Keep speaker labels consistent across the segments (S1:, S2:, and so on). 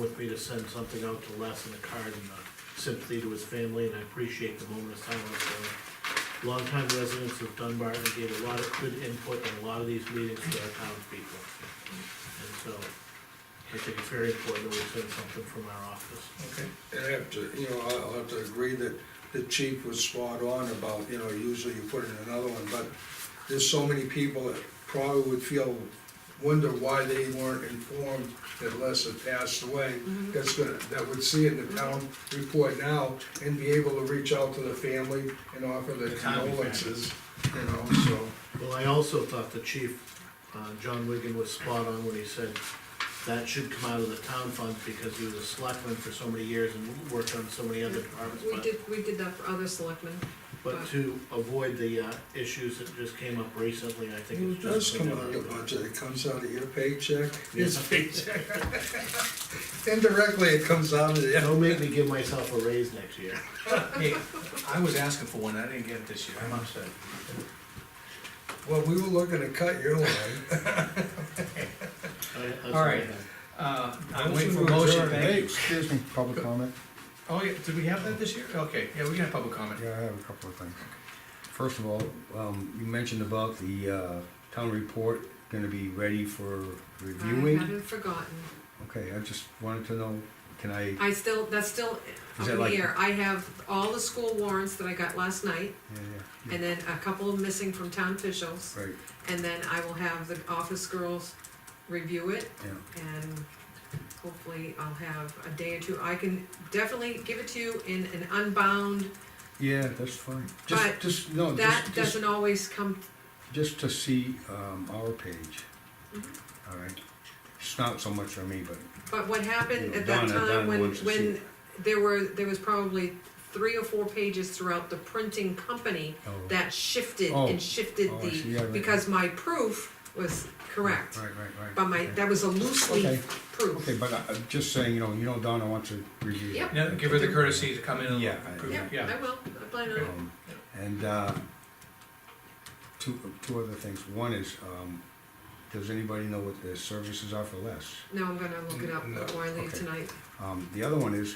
S1: with me to send something out to Les in a card and uh, sympathy to his family, and I appreciate the moment of silence. Uh, Longtime residents of Dunbar and gave a lot of good input in a lot of these meetings to our townspeople. And so, I think it's very important that we send something from our office.
S2: Okay,
S3: And I have to, you know, I'll I'll have to agree that the chief was spot on about, you know, usually you put in another one, but there's so many people that probably would feel, wonder why they weren't informed that Les had passed away. That's gonna, that would see it in the town report now and be able to reach out to the family and offer the
S1: The town
S3: condolences, you know, so.
S1: Well, I also thought the chief, uh, John Wigan was spot on when he said that should come out of the town fund because he was a selectman for so many years and worked on so many other departments.
S4: We
S1: but-
S4: did, we did that for other selectmen.
S1: But to avoid the, uh, issues that just came up recently, I think
S3: It
S1: it's
S3: does
S1: just.
S3: come out of your budget, it comes out of your paycheck.
S1: Yeah.
S3: Indirectly, it comes out of the.
S1: Don't make me give myself a raise next year.
S2: hey, I was asking for one, I didn't get it this year, I'm upset.
S3: Well, we were looking to cut your line.
S1: I- that's
S2: All right.
S1: I have.
S2: Uh, I'm waiting for a motion, thank you.
S5: Excuse me, public comment?
S2: Oh, yeah, did we have that this year? Okay, yeah, we can have public comment.
S5: Yeah, I have a couple of things. First of all, um, you mentioned about the, uh, town report gonna be ready for
S4: I
S5: reviewing.
S4: haven't forgotten.
S5: Okay, I just wanted to know, can I,
S4: I still, that's still
S5: Is
S4: up
S5: that
S4: in
S5: like-
S4: the air. I have all the school warrants that I got last night,
S5: yeah, yeah,
S4: and then a couple missing from town officials.
S5: right,
S4: And then I will have the office girls review it,
S5: yeah,
S4: and hopefully I'll have a day or two. I can definitely give it to you in an unbound,
S5: yeah, that's fine. Just,
S4: But
S5: Oh, just, no,
S4: that
S5: just, just,
S4: doesn't always come,
S5: just to see, um, our page.
S4: Mhm.
S5: All right, it's not so much for me, but,
S4: but what happened
S5: Yeah,
S4: at that
S5: Donna- Donna
S4: time when,
S5: wants to see
S4: when there were, there was probably three or four pages throughout the printing company
S5: oh.
S4: that shifted
S5: Oh.
S4: and shifted
S5: Oh, I see. Yeah,
S4: the,
S5: right.
S4: because my proof was correct.
S5: Right, right, right.
S4: But my,
S5: okay.
S4: that was a loose leaf
S5: Okay,
S4: proof.
S5: but I- I'm just saying, you know, you know Donna wants to review.
S4: Yep.
S2: Now, give her the courtesy to come in and
S5: Yeah, I-
S2: approve,
S4: Yeah,
S2: it. yeah.
S4: I will, I plan on it.
S5: Um, And, uh, two, two other things. One is, um, does anybody know what the services are for less?
S4: No, I'm gonna look it up
S3: No,
S4: before I leave
S5: okay.
S4: tonight.
S5: Um, the other one is,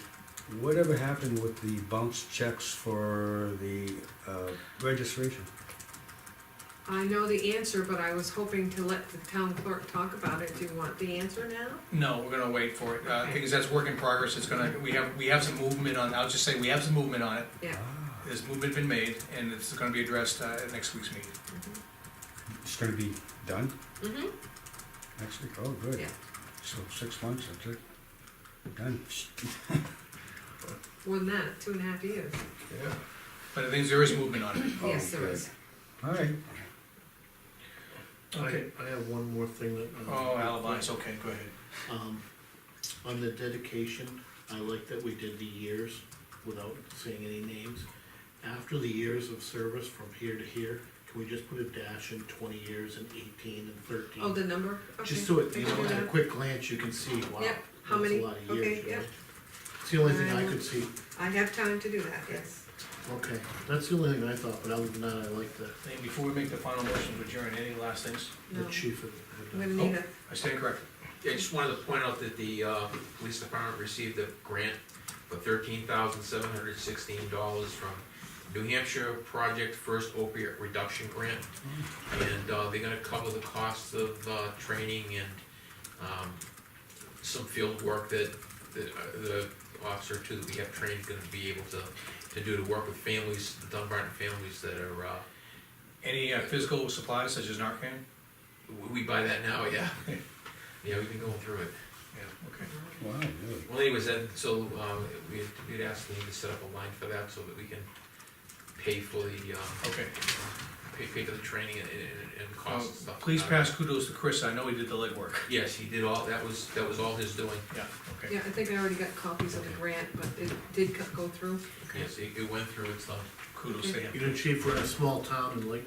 S5: whatever happened with the bounce checks for the, uh, registration?
S4: I know the answer, but I was hoping to let the town clerk talk about it. Do you want the answer now?
S2: No, we're gonna wait for it, uh, because that's work in progress, it's gonna, we have, we have some movement on, I'll just say, we have some movement on it.
S4: Yeah.
S5: Ah,
S2: There's movement been made, and it's gonna be addressed, uh, at next week's meeting.
S5: It's gonna be done
S4: Mm-hmm,
S5: next week? Oh, good.
S4: Yeah.
S5: So six months, that's it? Done.
S4: more than that, two and a half years.
S3: Yeah.
S2: But I think there is movement on it.
S5: Oh,
S4: Yes, there
S5: good.
S4: is.
S5: All right.
S2: Okay.
S1: I, I have one more thing that. um,
S2: Oh, alibi, it's okay, go ahead.
S1: Um, on the dedication, I like that we did the years without saying any names. After the years of service from here to here, can we just put a dash in twenty years and eighteen and thirteen?
S4: Oh, the number? Okay.
S1: Just so it,
S4: I
S1: you
S4: can
S1: know,
S4: do
S1: at a
S4: that.
S1: quick glance, you can see, wow,
S4: Yeah, how
S1: that's a
S4: many?
S1: lot of
S4: Okay,
S1: years, you know?
S4: yeah.
S1: It's the only thing I
S4: Um,
S1: could see,
S4: I have time to do that, yes.
S1: okay, that's the only thing I thought, but other than that, I like the,
S2: And before we make the final motion, to adjourn, any last things?
S4: No,
S1: the chief of.
S4: I'm gonna need a,
S2: I stand corrected.
S6: Yeah, I just wanted to point out that the, uh, police department received a grant for thirteen thousand seven hundred sixteen dollars from New Hampshire Project First Opiate Reduction Grant. And, uh, they're gonna cover the costs of, uh, training and, um, some field work that, that, uh, the officer too, that we have trained is gonna be able to, to do to work with families, the Dunbarton families that are, uh,
S2: Any uh, physical supplies such as Narcan?
S6: we- we buy that now, yeah. Yeah, we've been going through it.
S2: Yeah, okay.
S5: Wow, really?
S6: Well, anyways, that, so, um, we, we'd asked Lean to set up a line for that so that we can pay for the, um,
S2: Okay.
S6: pay, pay for the training and, and, and
S2: Uh,
S6: cost and stuff.
S2: Please pass kudos to Chris, I know he did the legwork.
S6: Yes, he did all, that was, that was all his doing.
S2: Yeah, okay.
S4: yeah, I think I already got copies of the grant, but it did co- go through.
S6: Yes, it, it went through, it's done.
S2: Kudos to him.
S1: You know, Chief, we're in a small town, and like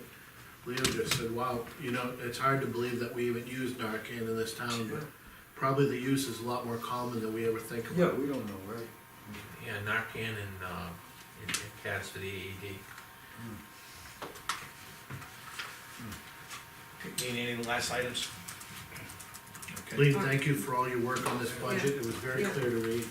S1: Leo just said, wow, you know, it's hard to believe that we even use Narcan in this town, but probably the use is a lot more common than we ever think about.
S5: we don't know, right?
S6: Yeah, Narcan and, uh, and and CADs for the E AED.
S2: Any, any last items?
S1: Lee, thank you for all your work on this budget, it was very
S4: Yeah.
S1: clear to read.